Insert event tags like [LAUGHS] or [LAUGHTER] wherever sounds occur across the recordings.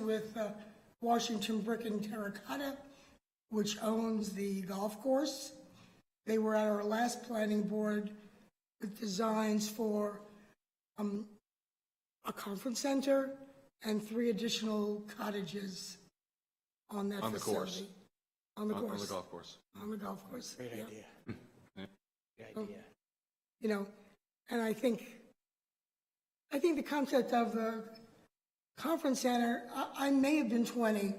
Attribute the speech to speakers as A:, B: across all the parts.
A: with uh, Washington Brick and Terracotta, which owns the golf course. They were at our last planning board with designs for um, a conference center and three additional cottages on that
B: On the course.
A: facility. On the
B: on- on the
A: course,
B: golf course.
A: on the golf course.
C: Great
A: [LAUGHS] yeah.
C: idea.
B: Yeah.
C: Great idea.
A: you know, and I think, I think the concept of the conference center, I, I may have been 20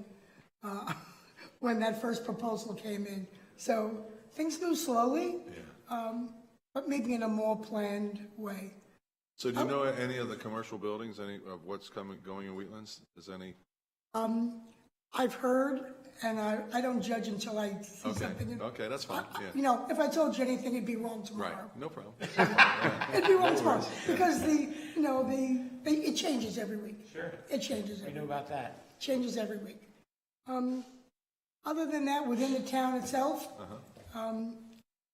A: uh, [LAUGHS] when that first proposal came in. So things move slowly, um, but maybe in a more planned way.
B: So
A: Oh.
B: do you know any of the commercial buildings, any of what's coming, going in Wheatlands? Is any,
A: Um, I've heard, and I, I don't judge until I see
B: okay,
A: something.
B: okay, that's
A: [LAUGHS]
B: fine,
A: I- You
B: yeah.
A: know, if I told you anything, it'd be wrong
B: Right,
A: tomorrow. [LAUGHS]
B: no problem. That's fine, all right.
A: It'd be wrong tomorrow, because the, you know, the, they- it changes every week. Sure. It changes every
C: I know about that.
A: changes every week. Um, Other than that, within the town itself, um,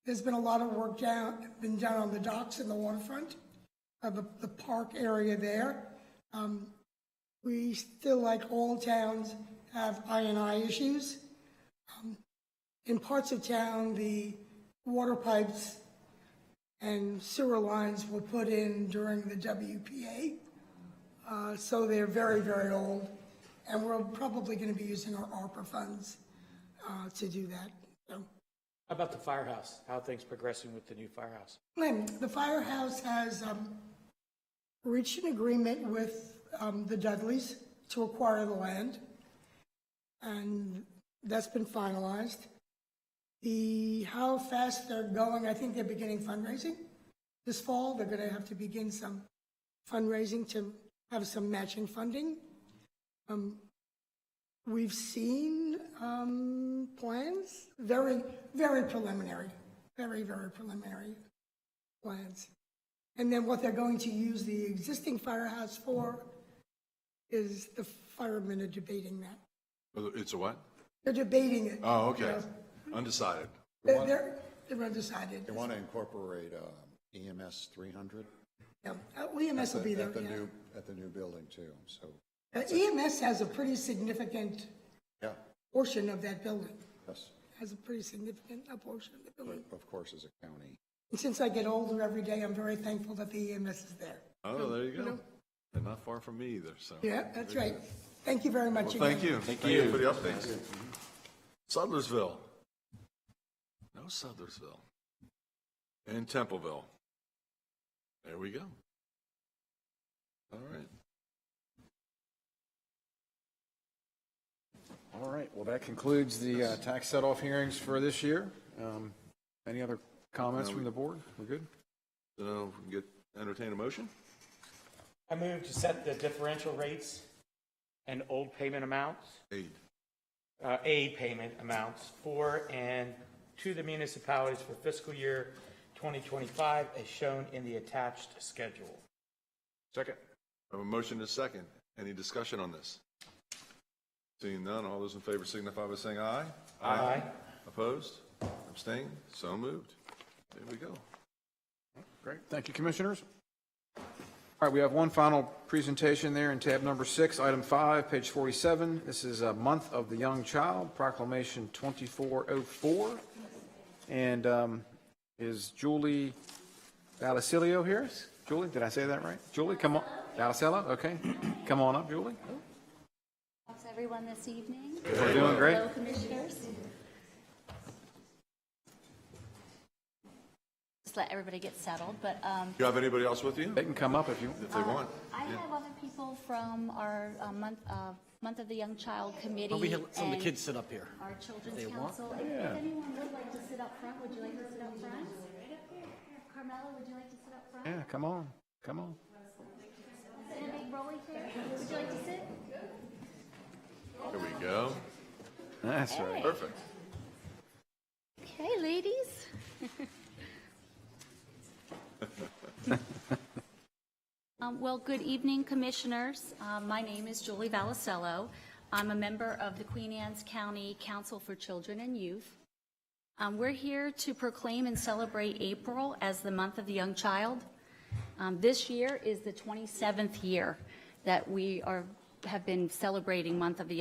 A: there's been a lot of work down, been done on the docks and the waterfront, uh, the, the park area there. Um, We still, like all towns, have I and I issues. Um, In parts of town, the water pipes and sewer lines were put in during the WPA. Uh, So they're very, very old, and we're probably going to be using our ARPA funds uh, to do that. So,
C: How about the firehouse? How are things progressing with the new firehouse?
A: Glenn, the firehouse has um, reached an agreement with um, the Dudleys to acquire the land, and that's been finalized. The, how fast they're going, I think they're beginning fundraising this fall. They're going to have to begin some fundraising to have some matching funding. Um, We've seen um, plans, very, very preliminary, very, very preliminary plans. And then what they're going to use the existing firehouse for is the firemen are debating that.
B: It's a what?
A: They're debating it.
B: Oh, okay,
A: Yeah.
B: undecided.
A: They're, they're- they're undecided.
D: They want to incorporate um, EMS 300.
A: Yeah, uh, EMS E will be there,
D: At the
A: yeah.
D: new, at the new building too, so,
A: Uh, EMS has a pretty significant
D: yeah,
A: portion of that building,
D: yes,
A: has a pretty significant uh, portion of the
D: but
A: building.
D: of course, as a county.
A: And since I get older every day, I'm very thankful that the EMS is there.
B: Oh, there you go. And not far from me either, so.
A: Yeah, that's right. Thank you very much.
B: Well, thank
A: again.
B: you. Thank you. For the update. Sudlersville. No Sudlersville. And Templeville. There we go. All right.
E: All right, well, that concludes the uh, tax set-off hearings for this year. Um, Any other comments from the board? We're good?
B: So we can get, entertain a motion?
C: I move to set the differential rates and old payment amounts,
B: Aid.
C: uh, aid payment amounts for and to the municipalities for fiscal year 2025 as shown in the attached schedule.
E: Second.
B: I have a motion and a second. Any discussion on this? Seeing none, all those in favor signify by saying aye.
C: Aye.
B: Opposed? Abstained? So moved. There we go.
E: Great, thank you, commissioners. All right, we have one final presentation there in tab number six, item five, page 47. This is a month of the young child, proclamation 2404. And um, is Julie Valacilio here? Julie, did I say that right? Julie, come on, Valacillo, okay. Come on up, Julie.
F: How's everyone this evening?
E: We're doing great.
F: Hello, commissioners. Just let everybody get settled, but um,
B: Do you have anybody else with you?
E: They can come up if you want.
B: If they want.
F: I have other people from our uh, month, uh, Month of the Young Child Committee.
G: We have some of the
F: and
G: kids sit up here.
F: Our
G: They
F: Children's
G: want-
F: Council. If if anyone would like to sit up front, would you like to sit up front? Carmella, would you like to sit up front?
E: Yeah, come on, come on.
F: In a big rolly chair? Would you like to sit?
B: There we go.
E: That's right.
B: Perfect.
F: Okay, ladies. [LAUGHS] Um, Well, good evening, Commissioners. Uh, My name is Julie Valicello. I'm a member of the Queen Anne's County Council for Children and Youth. Um, We're here to proclaim and celebrate April as the Month of the Young Child. Um, This year is the 27th year that we are have been celebrating Month of the Young